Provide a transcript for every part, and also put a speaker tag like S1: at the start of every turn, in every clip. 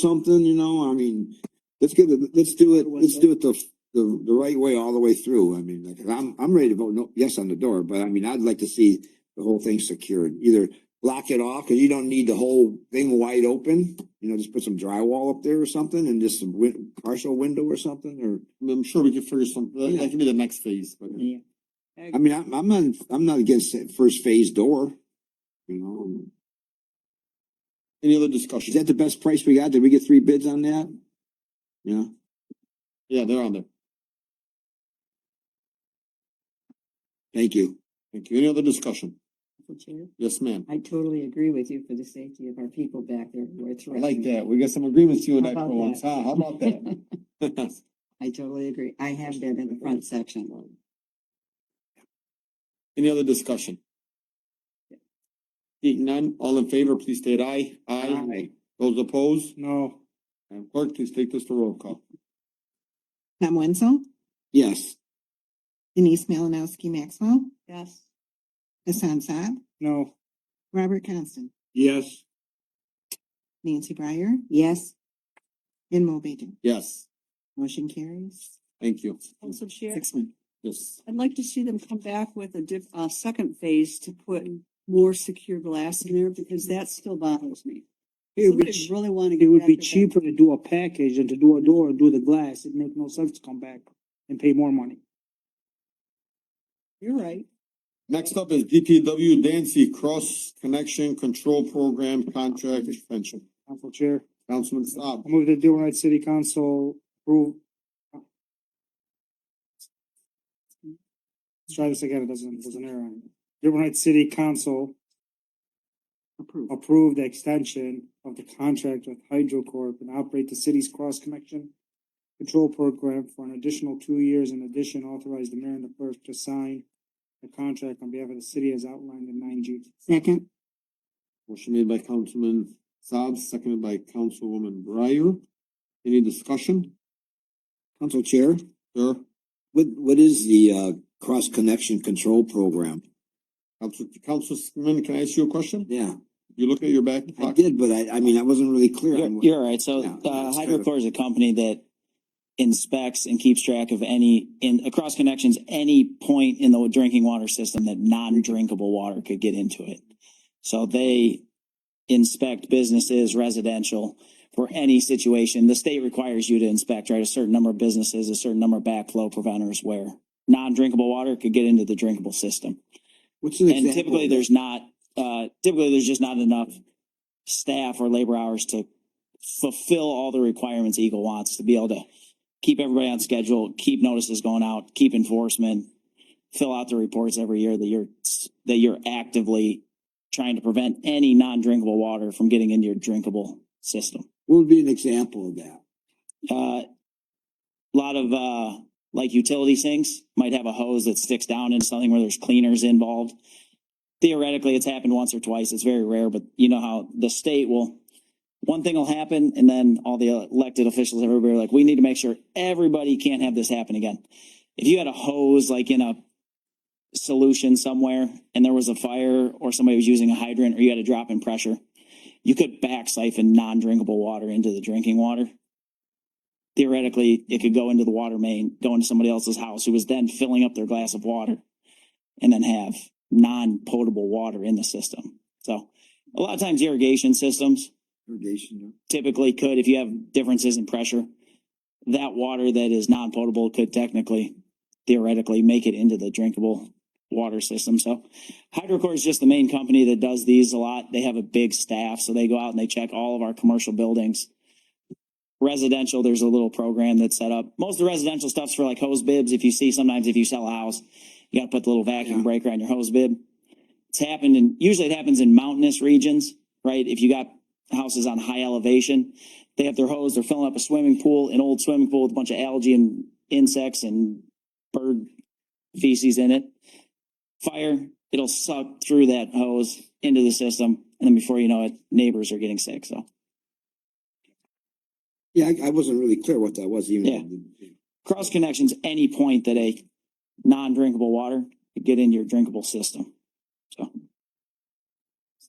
S1: something, you know, I mean, let's get it, let's do it, let's do it the, the, the right way all the way through. I mean, like, I'm, I'm ready to vote no, yes on the door, but I mean, I'd like to see the whole thing secured, either block it off, cause you don't need the whole thing wide open. You know, just put some drywall up there or something and just some win, partial window or something, or
S2: I'm sure we could figure some, that that could be the next phase, but.
S3: Yeah.
S1: I mean, I'm, I'm not, I'm not against that first phase door. You know,
S2: Any other
S1: is
S2: discussion?
S1: that the best price we got? Did we get three bids on that? Yeah,
S2: Yeah, they're on there.
S1: thank you.
S2: Thank you. Any other discussion?
S3: Mr. Chair,
S2: Yes, ma'am.
S3: I totally agree with you for the safety of our people back there who are
S2: I
S3: threatened.
S2: like that. We got some agreements you and I
S3: How
S2: for
S3: about
S2: once, huh? How about that?
S3: I totally agree. I have been in the front section.
S2: Any other discussion? Seeing none, all in favor, please state aye. Aye. Those opposed? No. Madam Clerk, please take this to roll call.
S4: Tom Wenzel,
S1: Yes.
S4: Denise Malinowski Maxwell,
S3: Yes.
S4: Hassan Saab,
S2: No.
S4: Robert Constant,
S1: Yes.
S4: Nancy Breyer,
S3: Yes.
S4: and Mo Beeding.
S2: Yes,
S4: Motion carries
S2: thank you.
S5: Council Chair,
S4: six one.
S2: Yes,
S5: I'd like to see them come back with a diff, uh, second phase to put more secure glass in there because that still bothers me.
S6: It would
S5: Somebody
S6: be, ch-
S5: really wanna.
S6: it
S5: get
S6: would be
S5: back to that.
S6: cheaper to do a package than to do a door and do the glass. It'd make no sense to come back and pay more money.
S5: You're right.
S2: next up is DPW Dancy Cross Connection Control Program Contract Extension.
S6: Council Chair,
S2: Councilman Saab.
S6: I move that Dearborn Heights City Council approve. Let's try this again. It doesn't, doesn't err on it. Dearborn Heights City Council
S3: Approved.
S6: approve the extension of the contract with HydroCorp and operate the city's cross connection control program for an additional two years. In addition, authorize the mayor and the clerk to sign the contract on behalf of the city as outlined in nine G.
S4: Second,
S2: Motion made by Councilman Saab, seconded by Councilwoman Breyer. Any discussion?
S1: Council Chair?
S2: Sir,
S1: What, what is the, uh, cross connection control program?
S2: Council, Councilman, can I ask you a question?
S1: Yeah,
S2: You look at your back
S1: I
S2: pocket.
S1: did, but I, I mean, I wasn't really clear
S7: You're,
S1: on what,
S7: you're all right. So,
S1: Yeah,
S7: uh,
S1: it's kind of-
S7: HydroCore is a company that inspects and keeps track of any, in, across connections, any point in the drinking water system that non-drinkable water could get into it. So they inspect businesses, residential, for any situation. The state requires you to inspect, right? A certain number of businesses, a certain number of backflow preventers where non-drinkable water could get into the drinkable system.
S1: what's an example?
S7: And typically,
S1: of
S7: there's not, uh, typically, there's just not enough staff or labor hours to fulfill all the requirements Eagle wants to be able to keep everybody on schedule, keep notices going out, keep enforcement, fill out the reports every year that you're, that you're actively trying to prevent any non-drinkable water from getting into your drinkable system
S1: What would be an example of that?
S7: uh, lot of, uh, like utility sinks might have a hose that sticks down into something where there's cleaners involved. Theoretically, it's happened once or twice. It's very rare, but you know how the state will, one thing will happen and then all the elected officials, everybody are like, we need to make sure everybody can't have this happen again. If you had a hose like in a solution somewhere and there was a fire or somebody was using a hydrant or you had a drop in pressure, you could back siphon non-drinkable water into the drinking water theoretically it could go into the water main, go into somebody else's house who was then filling up their glass of water and then have non-potable water in the system. So a lot of times irrigation systems
S1: Irrigation,
S7: typically could, if you have differences in pressure, that water that is non-potable could technically theoretically make it into the drinkable water system. So HydroCore is just the main company that does these a lot. They have a big staff, so they go out and they check all of our commercial buildings. Residential, there's a little program that's set up. Most of the residential stuff's for like hose bibs. If you see, sometimes if you sell a house, you gotta put the little
S1: Yeah.
S7: vacuum breaker on your hose bib. It's happened and usually it happens in mountainous regions, right? If you got houses on high elevation. They have their hose, they're filling up a swimming pool, an old swimming pool with a bunch of algae and insects and bird feces in it. Fire, it'll suck through that hose into the system. And then before you know it, neighbors are getting sick. So
S1: yeah, I, I wasn't really clear what that was even.
S7: cross connections, any point that a non drinkable water could get into your drinkable system. So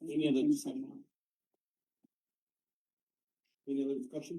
S2: Any other- Any other discussion?